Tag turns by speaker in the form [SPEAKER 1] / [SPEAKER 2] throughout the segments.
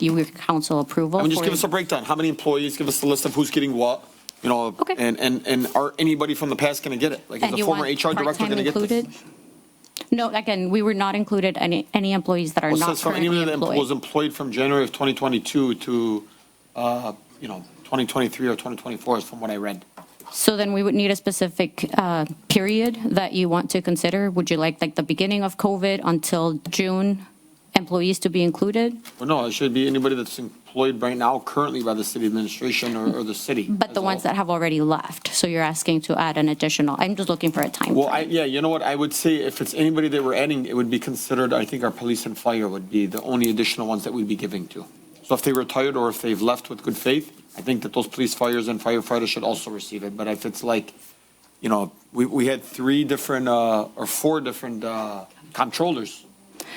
[SPEAKER 1] you your council approval.
[SPEAKER 2] I mean, just
[SPEAKER 1] for-
[SPEAKER 2] give us a breakdown. How many employees? Give us the list of who's getting what, you know?
[SPEAKER 1] Okay.
[SPEAKER 2] And, and, and are anybody from the past going to get it? Like, is
[SPEAKER 1] And
[SPEAKER 2] the
[SPEAKER 1] you
[SPEAKER 2] former
[SPEAKER 1] want
[SPEAKER 2] HR director
[SPEAKER 1] part-time
[SPEAKER 2] going to get this?
[SPEAKER 1] included? No, again, we were not included, any, any employees that are
[SPEAKER 2] Well, it
[SPEAKER 1] not
[SPEAKER 2] says from anyone
[SPEAKER 1] currently
[SPEAKER 2] that em- was
[SPEAKER 1] employed.
[SPEAKER 2] employed from January of 2022 to, uh, you know, 2023 or 2024 is from what I read.
[SPEAKER 1] So then we would need a specific uh, period that you want to consider. Would you like, like, the beginning of COVID until June, employees to be included?
[SPEAKER 2] Well, no, it should be anybody that's employed right now currently by the city administration or, or the city.
[SPEAKER 1] But
[SPEAKER 2] as
[SPEAKER 1] the
[SPEAKER 2] a
[SPEAKER 1] ones
[SPEAKER 2] whole.
[SPEAKER 1] that have already left, so you're asking to add an additional, I'm just looking for a time.
[SPEAKER 2] Well, I, yeah, you know what? I would say if it's anybody that we're adding, it would be considered, I think our police and fire would be the only additional ones that we'd be giving to. So if they retired or if they've left with good faith, I think that those police, fires and firefighters should also receive it. But if it's like, you know, we, we had three different, uh, or four different, uh, comptrollers.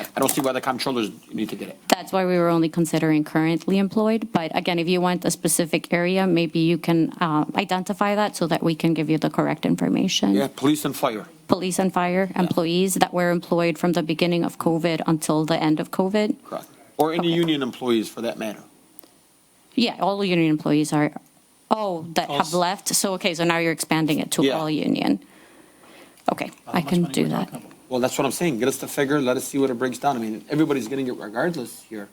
[SPEAKER 2] I- I don't see why the comptrollers need to get it.
[SPEAKER 1] That's why we were only considering currently employed, but again, if you want a specific area, maybe you can uh, identify that so that we can give you the correct information.
[SPEAKER 2] Yeah, police and fire.
[SPEAKER 1] Police and fire employees that were employed from the beginning of COVID until the end of COVID.
[SPEAKER 2] Correct. Or any
[SPEAKER 1] Okay.
[SPEAKER 2] union employees for that matter.
[SPEAKER 1] Yeah, all union employees are, oh, that have
[SPEAKER 2] Also-
[SPEAKER 1] left, so, okay, so now you're expanding it to
[SPEAKER 2] Yeah. Uh,
[SPEAKER 1] all union. Okay, I can do that.
[SPEAKER 2] Well, that's what I'm saying. Get us the figure, let us see what it breaks down. I mean, everybody's getting it regardless here.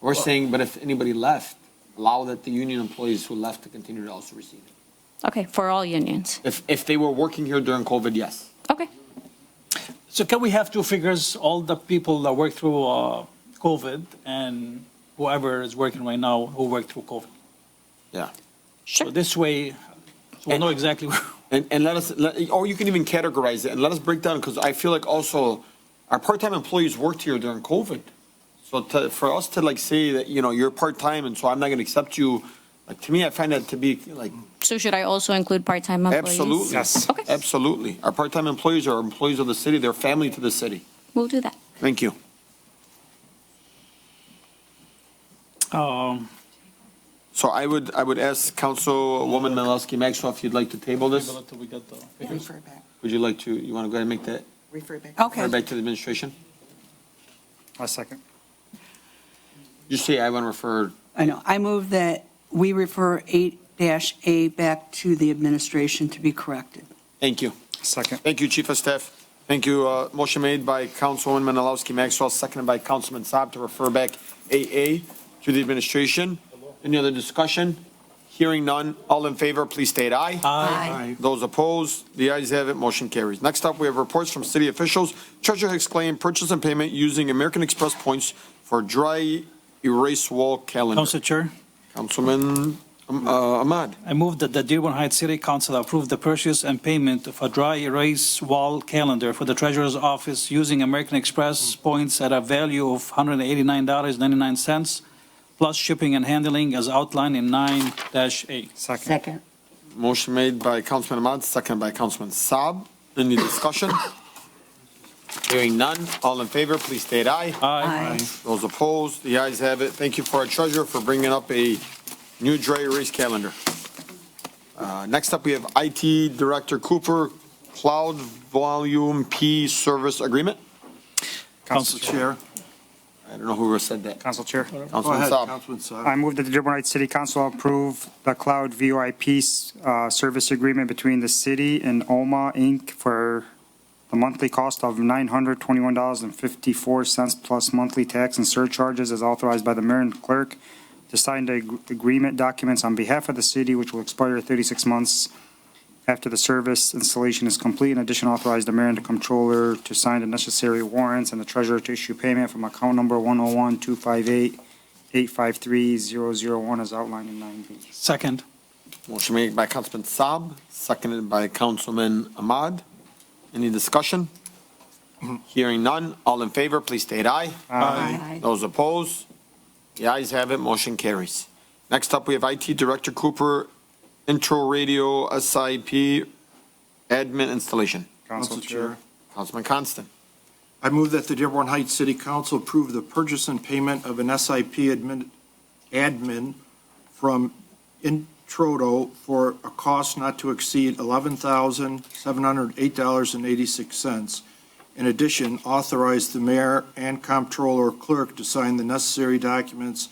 [SPEAKER 2] We're saying, but if anybody left, allow that the union employees who left to continue to also receive it.
[SPEAKER 1] Okay, for all unions,
[SPEAKER 2] If, if they were working here during COVID, yes.
[SPEAKER 1] okay.
[SPEAKER 3] So can we have two figures, all the people that worked through uh, COVID and whoever is working right now who worked through COVID?
[SPEAKER 2] Yeah.
[SPEAKER 3] So this way, so we'll know exactly. where-
[SPEAKER 2] And, and let us, let- or you can even categorize it and let us break down, because I feel like also our part-time employees worked here during COVID. So to, for us to like say that, you know, you're part-time and so I'm not going to accept you, like, to me, I find that to be like,
[SPEAKER 1] So should I also include part-time employees?
[SPEAKER 2] Absolutely.
[SPEAKER 4] Yes.
[SPEAKER 1] Okay.
[SPEAKER 2] Absolutely. Our part-time employees are employees of the city, they're family to the city.
[SPEAKER 1] We'll do that.
[SPEAKER 2] Thank you.
[SPEAKER 3] Um,
[SPEAKER 2] So I would, I would ask Councilwoman Menalowski Maxwell if you'd like to table this.
[SPEAKER 3] table it till we get the figures.
[SPEAKER 5] Refer back,
[SPEAKER 2] Would you like to, you want to go ahead and make that,
[SPEAKER 5] refer back.
[SPEAKER 2] turn
[SPEAKER 5] Okay,
[SPEAKER 2] back to the administration?
[SPEAKER 4] A second.
[SPEAKER 2] Just say I want to refer,
[SPEAKER 5] I know. I move that we refer 8-A back to the administration to be corrected.
[SPEAKER 2] thank you.
[SPEAKER 4] Second.
[SPEAKER 2] Thank you, Chief of Staff. Thank you. Uh, Motion made by Councilwoman Menalowski Maxwell, seconded by Councilman Saab to refer back AA to the administration. Any other discussion? Hearing none. All in favor, please state aye.
[SPEAKER 3] Aye.
[SPEAKER 2] Those opposed, the ayes have it, motion carries. Next up, we have reports from city officials. Treasurer Hicks claim purchase and payment using American Express points for dry erase wall calendar.
[SPEAKER 3] Council Chair,
[SPEAKER 2] Councilman um, uh, Ahmad,
[SPEAKER 3] I move that the Dearborn Heights City Council approve the purchase and payment of a dry erase wall calendar for the treasurer's office using American Express points at a value of $189.99 plus shipping and handling as outlined in 9-A.
[SPEAKER 4] Second.
[SPEAKER 5] Second.
[SPEAKER 2] motion made by Councilman Ahmad, second by Councilman Saab. Any discussion? Hearing none, all in favor, please state aye.
[SPEAKER 5] Aye.
[SPEAKER 2] Those opposed, the ayes have it. Thank you for our treasurer for bringing up a new dry erase calendar. Uh, Next up, we have IT Director Cooper, Cloud Volume P Service Agreement.
[SPEAKER 3] Council Chair.
[SPEAKER 2] I don't know who said that.
[SPEAKER 4] Council Chair.
[SPEAKER 6] Go
[SPEAKER 2] Councilman
[SPEAKER 6] ahead,
[SPEAKER 2] Saab.
[SPEAKER 6] Councilman Saab.
[SPEAKER 4] I move that the Dearborn Heights City Council approve the Cloud VoIP uh, service agreement between the city and OMA Inc. for the monthly cost of $921.54 plus monthly tax and surcharges as authorized by the mayor and clerk to sign the ag- agreement documents on behalf of the city, which will expire 36 months after the service installation is complete. In addition, authorize the mayor and the comptroller to sign the necessary warrants and the treasurer to issue payment from account number 101258 853-001 as outlined in 9B.
[SPEAKER 3] Second.
[SPEAKER 2] Motion made by Councilman Saab, seconded by Councilman Ahmad. Any discussion? Hearing none, all in favor, please state aye.
[SPEAKER 5] Aye.
[SPEAKER 2] Those opposed? The ayes have it, motion carries. Next up, we have IT Director Cooper, intro radio SIP admin installation.
[SPEAKER 4] Council Chair.
[SPEAKER 2] Councilman Constant.
[SPEAKER 6] I move that the Dearborn Heights City Council approve the purchase and payment of an SIP admin, admin from Introdo for a cost not to exceed eleven thousand, seven hundred, eight dollars and eighty-six cents In addition, authorize the mayor and comptroller clerk to sign the necessary documents